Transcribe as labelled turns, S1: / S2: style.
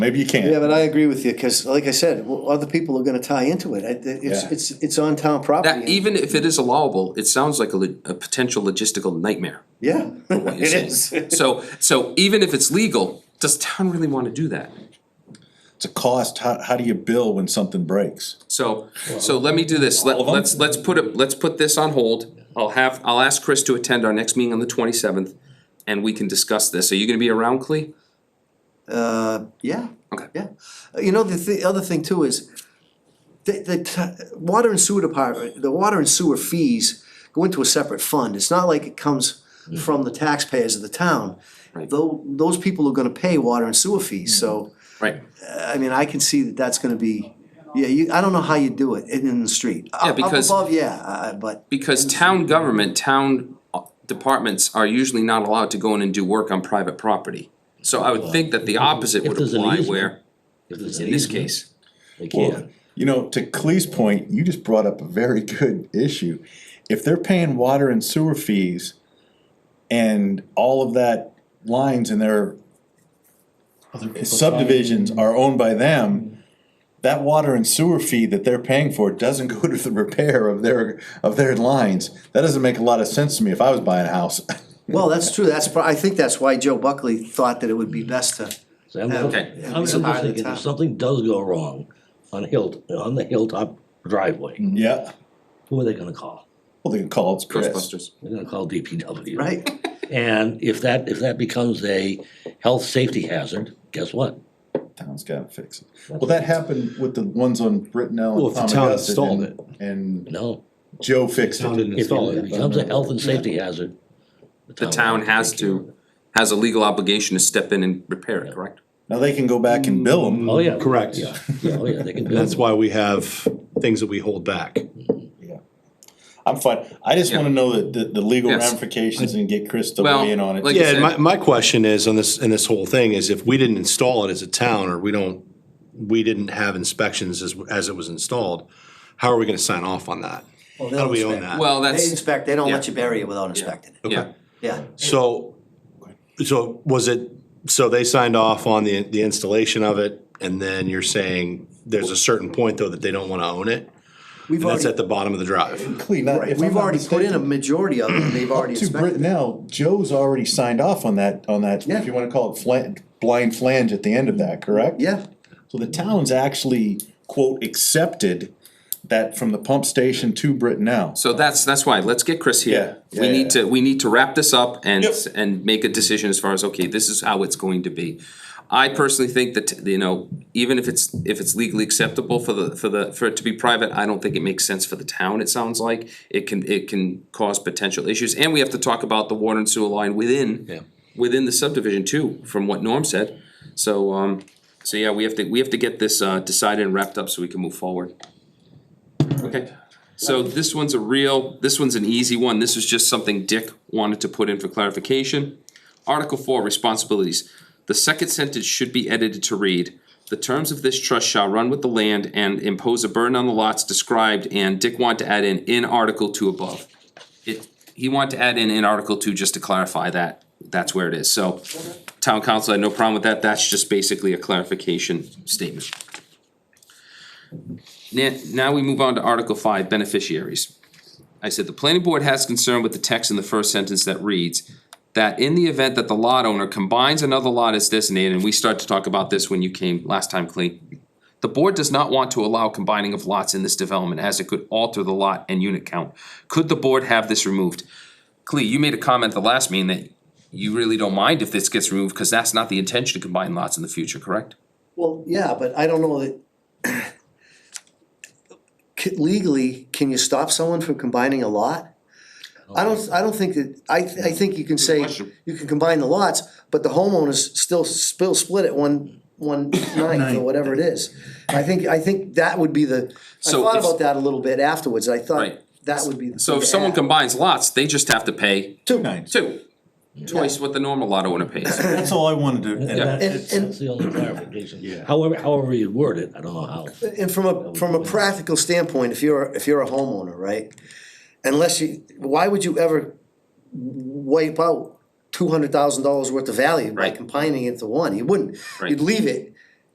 S1: Maybe you can't.
S2: Yeah, but I agree with you, cause like I said, well, other people are gonna tie into it, I- it's,
S1: Yeah.
S2: it's, it's on town property.
S3: That, e-, even if it is allowable, it sounds like a, lo- a potential logistical nightmare.
S2: Yeah,
S3: what you're
S2: it
S3: saying.
S2: is.
S3: So, so even if it's legal, does town really wanna do that?
S1: It's a cost. How, how do you bill when something breaks?
S3: So, so let me do this, let,
S1: All of 'em?
S3: let's, let's put it, let's put this on hold. I'll have, I'll ask Chris to attend our next meeting on the twenty-seventh, and we can discuss this. Are you gonna be around, Clea?
S2: Uh, yeah.
S3: Okay.
S2: Yeah, Uh, you know, the, the other thing too is, the, the t- water and sewer department, the water and sewer fees go into a separate fund, it's not like it comes from the taxpayers of the town.
S3: Mm. Right. Mm.
S2: Though, those people are gonna pay water and sewer fees, so,
S3: Right,
S2: I mean, I can see that that's gonna be, yeah, you, I don't know how you do it in, in the street. Up-
S3: because-
S2: Up above, yeah, uh, but,
S3: because town government, town uh, departments are usually not allowed to go in and do work on private property. So I would think that the opposite
S4: If
S3: would
S4: there's an
S3: apply
S4: easement,
S3: where,
S4: If there's an
S3: in this
S4: easement,
S3: case.
S4: They
S1: Well,
S4: can't.
S1: you know, to Clee's point, you just brought up a very good issue. If they're paying water and sewer fees and all of that lines in their subdivisions are owned by them, that water and sewer fee that they're paying for doesn't go to the repair of their, of their lines. That doesn't make a lot of sense to me if I was buying a house.
S2: well, that's true, that's, pro- I think that's why Joe Buckley thought that it would be best to,
S4: So I'm I'm-
S3: Okay.
S4: I'm just thinking, if something does go wrong on Hill, on the Hilltop driveway,
S1: Yeah,
S4: who are they gonna call?
S1: well, they can call it's Chris.
S3: Ghostbusters.
S4: They're gonna call DPW.
S2: right?
S4: And if that, if that becomes a health, safety hazard, guess what?
S1: Town's gotta fix it. Well, that happened with the ones on Brittenell and
S5: Well, if the town
S1: Palmagussit
S5: installed
S1: and- And
S4: No,
S1: Joe fixed
S5: Town
S1: it.
S5: didn't
S4: if
S5: install it.
S4: it becomes a health and safety hazard.
S3: The town has to, has a legal obligation to step in and repair it, correct?
S1: Now they can go back and bill them.
S5: Mm.
S4: Oh, yeah.
S5: Correct.
S4: Yeah, yeah, oh, yeah, they can.
S5: And that's why we have things that we hold back.
S1: I'm fine. I just wanna know the, the, the legal
S3: Yes.
S1: ramifications and get Chris to
S3: Well,
S1: weigh in on
S3: like-
S1: it.
S5: Yeah, and
S3: said-
S5: my, my question is on this, in this whole thing is if we didn't install it as a town or we don't, we didn't have inspections as, as it was installed, how are we gonna sign off on that?
S2: Well,
S5: How do we
S2: they'll
S5: own
S2: inspect.
S5: that?
S3: Well,
S2: They
S3: that's,
S2: inspect, they don't let
S3: yeah.
S2: you bury it without inspecting it,
S5: Okay.
S3: yeah,
S2: yeah.
S5: So, so was it, so they signed off on the, the installation of it and then you're saying there's a certain point though that they don't wanna own it?
S2: We've
S5: And that's at
S2: already,
S5: the bottom of the drive.
S1: Clea, not-
S2: right,
S1: if I'm
S2: we've
S1: not
S2: already put in a
S1: mistaken,
S2: majority of it, and they've already
S1: To
S2: inspected. it.
S1: Brittenell, Joe's already signed off on that, on that,
S2: Yeah.
S1: if you wanna call it flan, blind flange at the end of that, correct?
S2: Yeah,
S1: So the town's actually, quote, accepted that from the pump station to Brittenell.
S3: so that's, that's why, let's get Chris here.
S1: Yeah,
S3: We
S1: yeah,
S3: need
S1: yeah.
S3: to, we need to wrap this up and,
S1: Yep.
S3: and make a decision as far as, okay, this is how it's going to be. I personally think that, you know, even if it's, if it's legally acceptable for the, for the, for it to be private, I don't think it makes sense for the town, it sounds like. It can, it can cause potential issues, and we have to talk about the water and sewer line within
S4: Yeah.
S3: within the subdivision too, from what Norm said. So, um, so yeah, we have to, we have to get this, uh, decided and wrapped up so we can move forward. Okay, so this one's a real, this one's an easy one, this is just something Dick wanted to put in for clarification. Article four, responsibilities. The second sentence should be edited to read, "The terms of this trust shall run with the land and impose a burden on the lots described," and Dick wanted to add in, "in Article two above." It, he wanted to add in, in Article two, just to clarify that, that's where it is, so. Town council had no problem with that, that's just basically a clarification statement. Now, now we move on to Article five, beneficiaries. I said, the planning board has concern with the text in the first sentence that reads, that in the event that the lot owner combines another lot as designated, and we start to talk about this when you came last time, Clea. The board does not want to allow combining of lots in this development as it could alter the lot and unit count. Could the board have this removed? Clea, you made a comment the last meeting that you really don't mind if this gets removed, cause that's not the intention to combine lots in the future, correct?
S2: well, yeah, but I don't know that. C- Legally, can you stop someone from combining a lot?
S3: Oh,
S2: I don't, I don't think that, I, th- I think you can say,
S3: question.
S2: you can combine the lots, but the homeowners still, still split it one, one ninth or whatever it is. I think, I think that would be the, I
S3: So
S2: thought
S3: if-
S2: about that a little bit afterwards, I thought
S3: Right.
S2: that would be. the
S3: So
S2: thing
S3: if
S2: to
S3: someone
S2: add.
S3: combines lots, they just have to pay
S2: Two.
S3: two, twice what the normal lot owner pays.
S1: That's all I wanted
S4: And that-
S2: And- and-
S4: That's the only clarification. However, however you word it, I don't know how.
S2: And from a, from a practical standpoint, if you're, if you're a homeowner, right? Unless you, why would you ever wipe out two hundred thousand dollars worth of value by
S3: Right.
S2: combining it to one? You wouldn't.
S3: Right.
S2: You'd leave it,